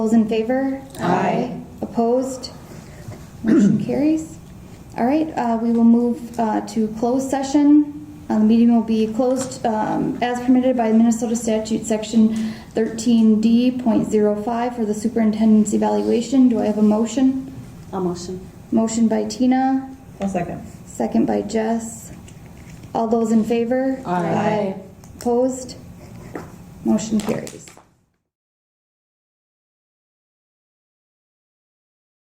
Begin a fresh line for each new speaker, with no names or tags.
Those in favor? Aye. Opposed? Motion carries. All right, uh, we will move uh, to closed session. Uh, The meeting will be closed um, as permitted by Minnesota Statute Section 13D.05 for the superintendent's evaluation. Do I have a motion?
A motion.
Motion by Tina,
I'll second.
second by Jess. All those in favor?
Aye.
Opposed? Motion carries.